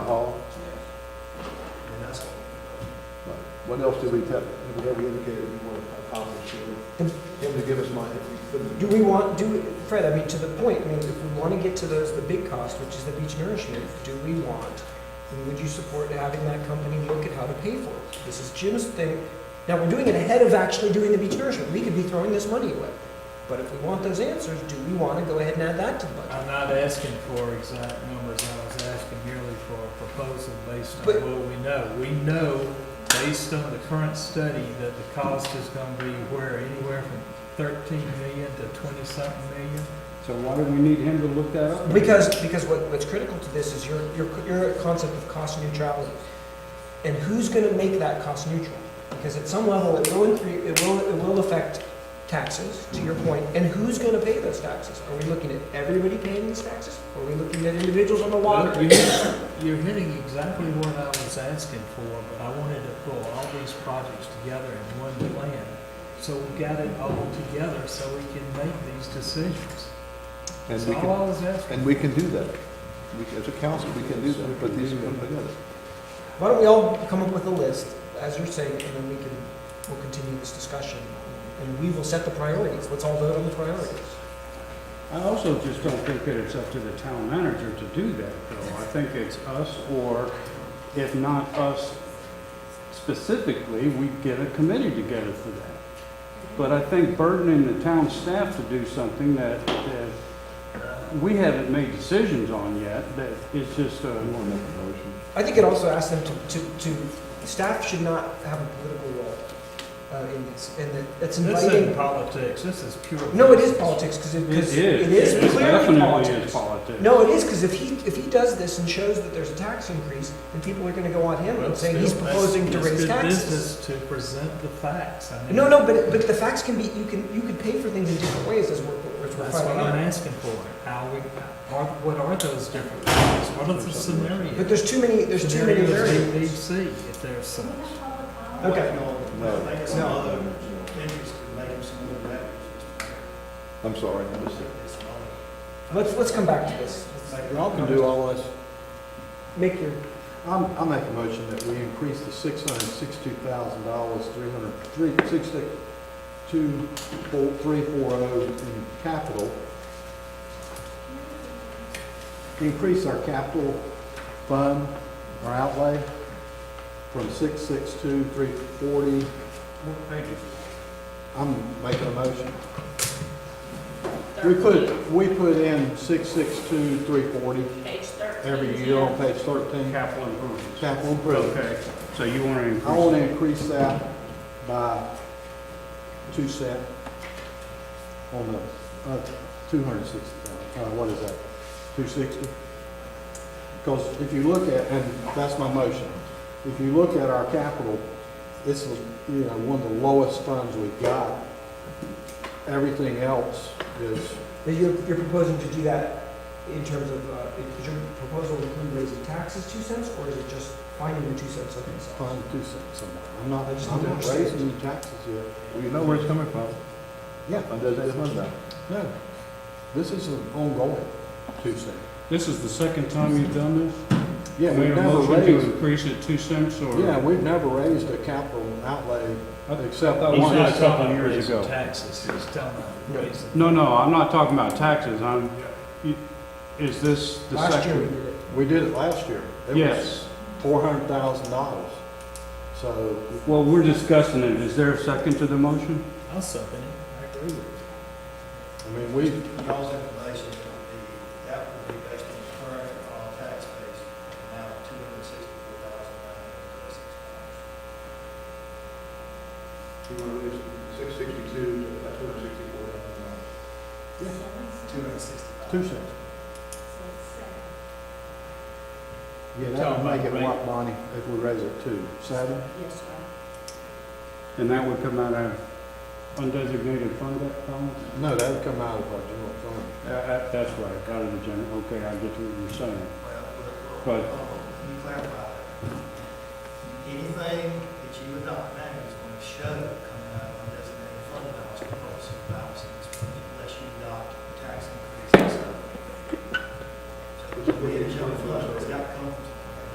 What else did we tell, did we ever indicate we want to accomplish here? Him to give us money if we couldn't. Do we want, do, we- Fred, I mean, to the point, I mean, if we want to get to those, the big cost, which is the beach nourishment, do we want, and would you support having that company look at how to pay for it? This is Jim's thing. Now, we're doing it ahead of actually doing the beach nourishment. We could be throwing this money away. But if we want those answers, do we want to go ahead and add that to the budget? I'm not asking for exact numbers, I was asking merely for a proposal based on But- what we know. We know, based on the current study, that the cost is gonna be where, anywhere from thirteen million to twenty-something million? So why do we need him to look that up? Because, because what, what's critical to this is your, your, your concept of cost neutrality. And who's gonna make that cost neutral? Because at some level, it will, incre- it will, it will affect taxes, to your point, and who's gonna pay those taxes? Are we looking at everybody paying these taxes? Are we looking at individuals on the water? You're hitting- You're hitting exactly what I was asking for, but I wanted to pull all these projects together in one plan. So we got it all together so we can make these decisions. And That's we all can, I was asking. and we can do that. We, can- as a council, we can do that, put these people together. Why don't we all come up with a list, as you're saying, and then we can, we'll continue this discussion. And we will set the priorities. Let's all vote on the priorities. I also just don't think that it's up to the town manager to do that, though. I think it's us, or if not us specifically, we get a committee together for that. But I think burdening the town staff to do something that, that we haven't made decisions on yet, that is just We a, want to make a motion. I think it also asks them to, to, to, staff should not have a political role uh, in this, and that it's This isn't inviting. politics, this is pure. No, it is business. politics, because it, 'cause it is. it is It clearly definitely is politics. politics. No, it is, because if he, if he does this and shows that there's a tax increase, then people are gonna go on him Well, and say he's still, proposing to it's- it's raise good taxes. business To present the facts. I mean, No, no, but, but the facts can be, you can, you could pay for things in different ways as we're, as we're That's what finding I'm out. asking for. How we, are, what are those different facts? What are the scenarios? But there's too many, there's too many Scenarios variables. we need to see if there's some. Okay. No, Make some other no, interest, make them some other records. I'm sorry. I was- Let's, let's come back to this. Y'all can do all this. Make your, I'm, I make a motion that we increase the six hundred and sixty-two thousand dollars, three hundred, three, six, six, two, four, three, four oh in capital. Increase our capital fund, our outlay, from six, six, two, three forty. I'm making a motion. We put, we put in six, six, two, three forty Page thirteen. every year on page thirteen, Capital improvements. capital improvement. Okay, so you want to increase. I want to increase that by two cent on the, uh, two hundred and sixty thousand, uh, what is that, two sixty? Because if you look at, and that's my motion, if you look at our capital, it's, you know, one of the lowest funds we've got. Everything else is, That You're, you're proposing to do that in terms of, uh, is your proposal include raising taxes two cents, or is it just finding the two cents of themselves? fund two cents somewhere. I'm not, I just I'm don't not understand. raising any taxes here. Well, you know where it's coming from. Yeah, Undesignated fund balance. no, this is an ongoing two cent. This is the second time you've done this? Yeah, Made we've a never motion to raised. increase it two cents or? Yeah, we've never raised a capital outlay except that I thought one. wanted He's not something talking about years raising ago. Taxes, he's telling them to raise it. No, no, I'm not talking about taxes, I'm, you- is this the Last year we second? did it. We did it last year. Yes, Four hundred thousand dollars. So, well, we're discussing it, is there a second to the motion? I'll second it, I agree with you. I mean, we, Y'all's information would be, that would be based on the current uh, tax base, now two hundred and sixty-four thousand nine hundred and thirty-six dollars. Six sixty-two, two hundred sixty-four. Two hundred and sixty-five. two cents. Yeah, that would make it what, Bonnie, if we raise it to seven? Yes, sir. And that would come out of undesignated fund balance? No, that would come out of our general fund. Uh, uh, That's right, out of the general, okay, I get what you're saying. Well, we're- But- Let me clarify that. Anything that you adopt now is going to show coming out of undesignated fund balance because of balance in this budget, unless you adopt tax increases. So it's going to be a general fund, it's got to come from